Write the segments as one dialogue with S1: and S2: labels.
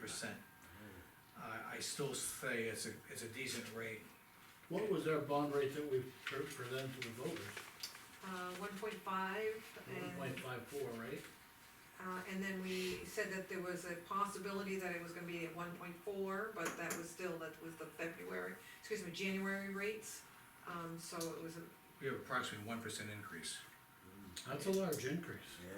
S1: percent. I, I still say it's a, it's a decent rate.
S2: What was our bond rate that we pre- presented to the voters?
S3: uh, one point five,
S2: One
S3: and,
S2: point five four, right?
S3: uh, and then we said that there was a possibility that it was gonna be at one point four, but that was still, that was the February, excuse me, January rates. Um, so it was, a-
S1: We have approximately one percent increase.
S2: That's a large increase.
S4: Yeah.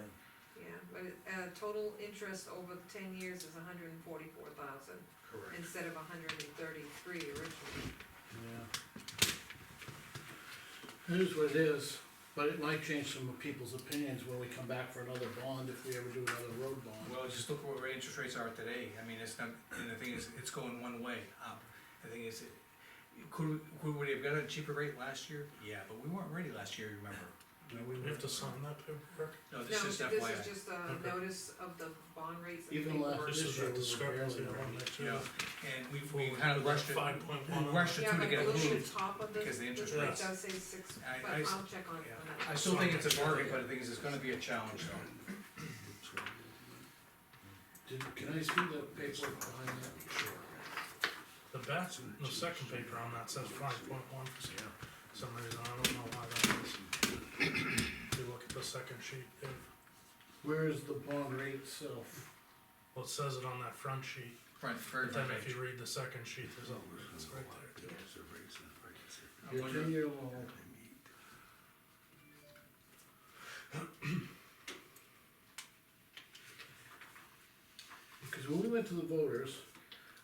S3: yeah, but, it- uh, total interest over ten years is hundred and forty-four thousand,
S1: Correct.
S3: instead of hundred and thirty-three originally.
S2: Yeah. It is what it is, but it might change some of people's opinions when we come back for another bond, if we ever do another road bond.
S1: Well, just look where interest rates are today, I mean, it's not, and the thing is, it's going one way up. The thing is, it- could, we- could we have got a cheaper rate last year? Yeah, but we weren't ready last year, remember?
S5: We have to sign that paperwork.
S1: No,
S3: No,
S1: this is
S3: this is
S1: FYI.
S3: just a
S5: Okay.
S3: notice of the bond rates. and
S2: Even last-
S3: paperwork.
S2: This
S5: This is
S2: year
S5: that
S2: we were
S5: discrepancy
S2: barely
S5: I
S2: ready.
S5: wanna make sure.
S1: Yeah, and we, we kind of rushed it,
S5: Five point one.
S1: we rushed it
S3: Yeah,
S1: through to
S3: but
S1: get it
S3: the little
S1: moved.
S3: top of
S1: because the
S3: this, this
S1: interest
S3: rate
S5: rates-
S3: does say six,
S1: I-
S3: but
S1: I s-
S3: I'll check on it
S1: Yeah.
S3: for that.
S1: I still think it's a bargain, but the thing is, it's gonna be a challenge, though.
S2: Did, can I see the paperwork behind that?
S5: The back, the second paper on that says five point one percent, for some reason, I don't know why that is. If you look at the second sheet, it,
S2: Where is the bond rate itself?
S5: well, it says it on that front sheet,
S1: Front, very
S5: but then
S1: front
S5: if
S1: page.
S5: you read the second sheet, there's a, it's right there too.
S1: I
S2: Your
S1: wonder-
S2: ten-year loan, because when we went to the voters,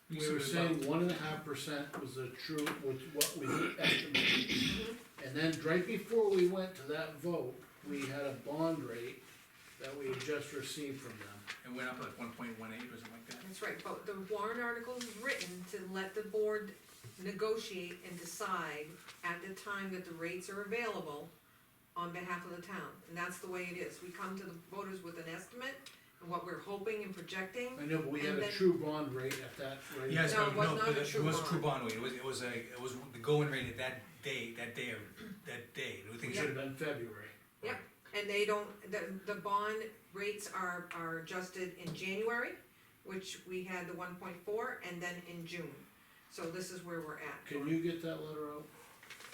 S1: We
S2: We were
S1: sort of-
S2: saying one and a half percent was the true, was what we estimated. And then right before we went to that vote, we had a bond rate that we had just received from them.
S1: It went up like one point one eight or something like that.
S3: That's right, but the warrant article is written to let the board negotiate and decide at the time that the rates are available on behalf of the town, and that's the way it is, we come to the voters with an estimate and what we're hoping and projecting.
S2: I know, but we had
S3: And
S2: a
S3: then-
S2: true bond rate at that rate.
S1: Yes,
S3: No,
S1: but
S3: it was
S1: no,
S3: not
S1: but
S3: a
S1: it
S3: true
S1: was
S3: bond.
S1: true bond rate, it was, it was a, it was the going rate at that day, that day, of that day, the thing
S2: It
S1: is,
S2: should have been February.
S3: Yep, and they don't, the, the bond rates are, are adjusted in January, which we had the one point four, and then in June. So this is where we're at
S2: Can you get that letter out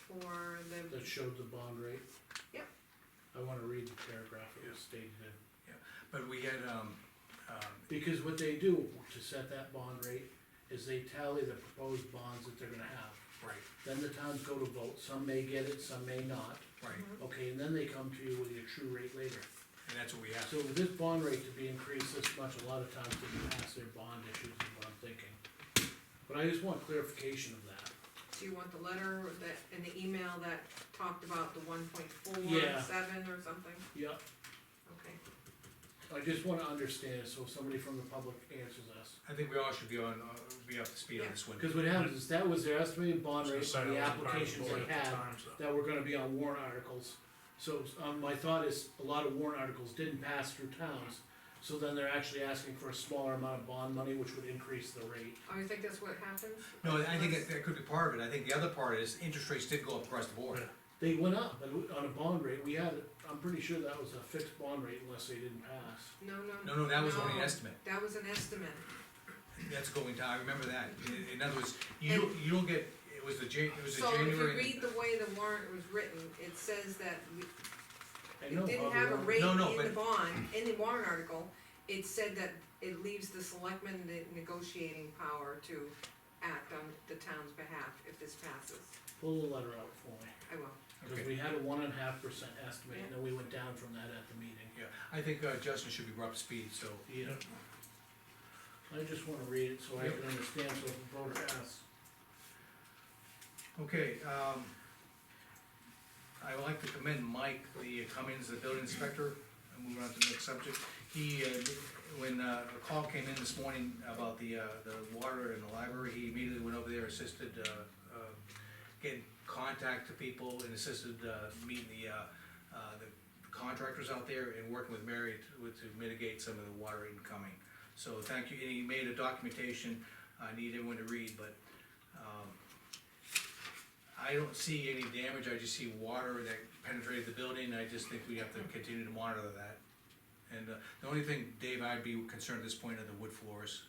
S3: for the,
S2: that showed the bond rate?
S3: Yep.
S2: I wanna read the paragraph it was stated in.
S1: but we had, um, um,
S2: Because what they do to set that bond rate is they tally the proposed bonds that they're gonna have.
S1: right,
S2: Then the towns go to vote, some may get it, some may not.
S1: right,
S2: Okay, and then they come to you with your true rate later.
S1: and that's what we have.
S2: So with this bond rate to be increased this much, a lot of times they pass their bond issues, is what I'm thinking. But I just want clarification of that.
S3: do you want the letter that, and the email that talked about the one point four,
S2: Yeah.
S3: seven or something?
S2: Yep,
S3: Okay,
S2: I just wanna understand, so somebody from the public answers us.
S1: I think we all should be on, uh, be up to speed on this one.
S2: Cause what happens is that was their estimated bond rate
S5: So
S2: for the
S5: it was part of
S2: applications
S5: board
S2: they
S5: at the
S2: had,
S5: time, so-
S2: that were gonna be on warrant articles. So, um, my thought is, a lot of warrant articles didn't pass through towns, so then they're actually asking for a smaller amount of bond money, which would increase the rate.
S3: oh, you think that's what happens?
S1: No, I think that, that could be part of it, I think the other part is, interest rates did go up across the board.
S5: Yeah.
S2: They went up, but on a bond rate, we had, I'm pretty sure that was a fixed bond rate unless they didn't pass.
S3: No, no.
S1: No, no, that was only an
S3: no,
S1: estimate,
S3: That was an estimate,
S1: that's going down, I remember that, in, in other words, you, don't- you don't get, it was the Jan, it was the
S3: so if you
S1: January.
S3: read the way the warrant was written, it says that we,
S2: I know
S3: It didn't
S2: Bobby
S3: have a
S2: Ryan-
S3: rate
S1: No, no,
S3: in the
S1: but-
S3: bond, in the warrant article, it said that it leaves the selectmen the negotiating power to act on the town's behalf if this passes.
S2: Pull the letter out for me,
S3: I will.
S2: cause
S1: Okay.
S2: we had a one and a half percent estimate, and then we went down from that at the meeting.
S1: Yeah, I think, uh, Justin should be brought up to speed, so,
S2: Yeah. I just wanna read it so I can understand, so if the voter asks.
S1: Okay, um, I would like to commend Mike, the Cummings, the building inspector, and moving on to the next subject. He, uh, when, uh, a call came in this morning about the, uh, the water in the library, he immediately went over there, assisted, uh, uh, getting contact to people and assisted, uh, meeting the, uh, uh, the contractors out there and working with Mary to, with- to mitigate some of the water incoming. So thank you, and he made a documentation, I need everyone to read, but, um, I don't see any damage, I just see water that penetrated the building, I just think we have to continue to monitor that. And uh, the only thing, Dave, I'd be concerned at this point are the wood floors,